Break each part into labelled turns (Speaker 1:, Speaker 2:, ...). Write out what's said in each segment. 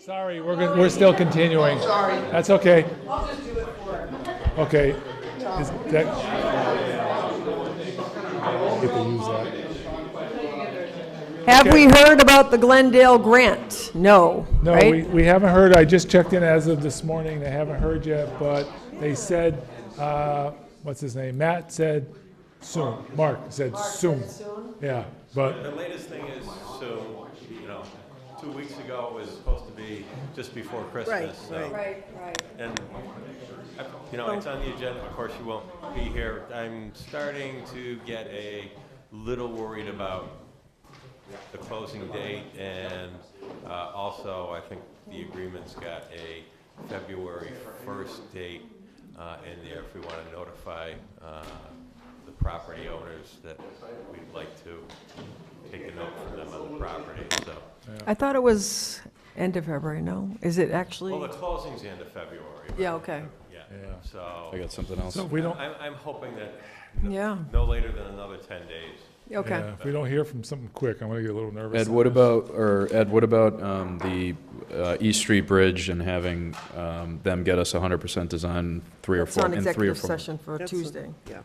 Speaker 1: Sorry, we're, go- we're still continuing. Sorry. That's okay.
Speaker 2: Oh, I'll just do it for him.
Speaker 1: Okay. Is that- Get to use that.
Speaker 2: Have we heard about the Glendale grant? No,
Speaker 1: No,
Speaker 2: right?
Speaker 1: we, we haven't heard. I just checked in as of this morning. They haven't heard yet, but they said, uh, what's his name? Matt said soon. Mark said soon. Yeah, but
Speaker 3: The latest thing is, so, you know, two weeks ago it was supposed to be just before Christmas, so.
Speaker 2: Right, right.
Speaker 3: And, you know, it's on the agenda, of course you won't be here. I'm starting to get a little worried about the closing date and uh, also I think the agreement's got a February first date uh, in there if we want to notify uh, the property owners that we'd like to take a note from them on the property, so.
Speaker 2: I thought it was end of February, no? Is it
Speaker 3: Well, the
Speaker 2: actually?
Speaker 3: closing's the end of February.
Speaker 2: Yeah, okay.
Speaker 3: Yeah,
Speaker 1: Yeah.
Speaker 3: so.
Speaker 4: I got something else.
Speaker 1: so if we don't,
Speaker 3: I'm, I'm hoping that
Speaker 2: Yeah,
Speaker 3: no later than another ten days.
Speaker 2: okay.
Speaker 1: yeah, if we don't hear from something quick, I'm gonna get a little nervous.
Speaker 4: Ed, what about, or Ed, what about um, the uh, East Street Bridge and having um, them get us 100% design three or
Speaker 2: It's
Speaker 4: four,
Speaker 2: on
Speaker 4: in three or
Speaker 2: executive
Speaker 4: four?
Speaker 2: session for Tuesday.
Speaker 5: Yeah.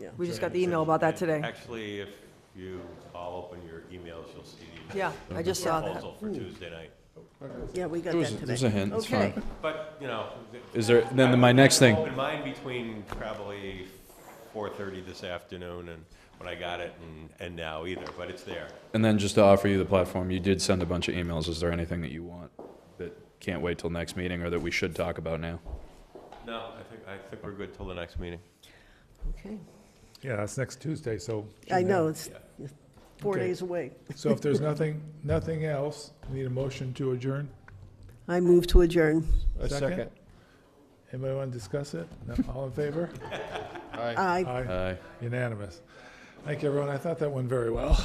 Speaker 1: Yeah.
Speaker 2: We just got the email about that today.
Speaker 3: Actually, if you all open your emails, you'll see the
Speaker 2: Yeah, I just saw that.
Speaker 3: proposal for Tuesday night.
Speaker 5: Yeah, we got
Speaker 4: It was,
Speaker 5: that
Speaker 4: it was a
Speaker 5: today.
Speaker 4: hint, it's
Speaker 2: Okay.
Speaker 4: fine.
Speaker 3: But, you know. th-
Speaker 4: Is there,
Speaker 3: I
Speaker 4: then
Speaker 3: would
Speaker 4: my next thing,
Speaker 3: Open mine between probably four thirty this afternoon and when I got it and, and now either, but it's there.
Speaker 4: and then just to offer you the platform, you did send a bunch of emails. Is there anything that you want that can't wait till next meeting or that we should talk about now?
Speaker 3: No, I think, I think we're good till the next meeting.
Speaker 5: Okay.
Speaker 1: Yeah, that's next Tuesday, so.
Speaker 5: I know, it's four
Speaker 1: Okay.
Speaker 5: days away.
Speaker 1: So if there's nothing, nothing else, need a motion to adjourn?
Speaker 5: I move to adjourn.
Speaker 1: Second. Anybody want to discuss it? No, all in favor?
Speaker 5: Aye.
Speaker 1: Aye,
Speaker 4: Aye.
Speaker 1: unanimous. Thank you, everyone. I thought that went very well.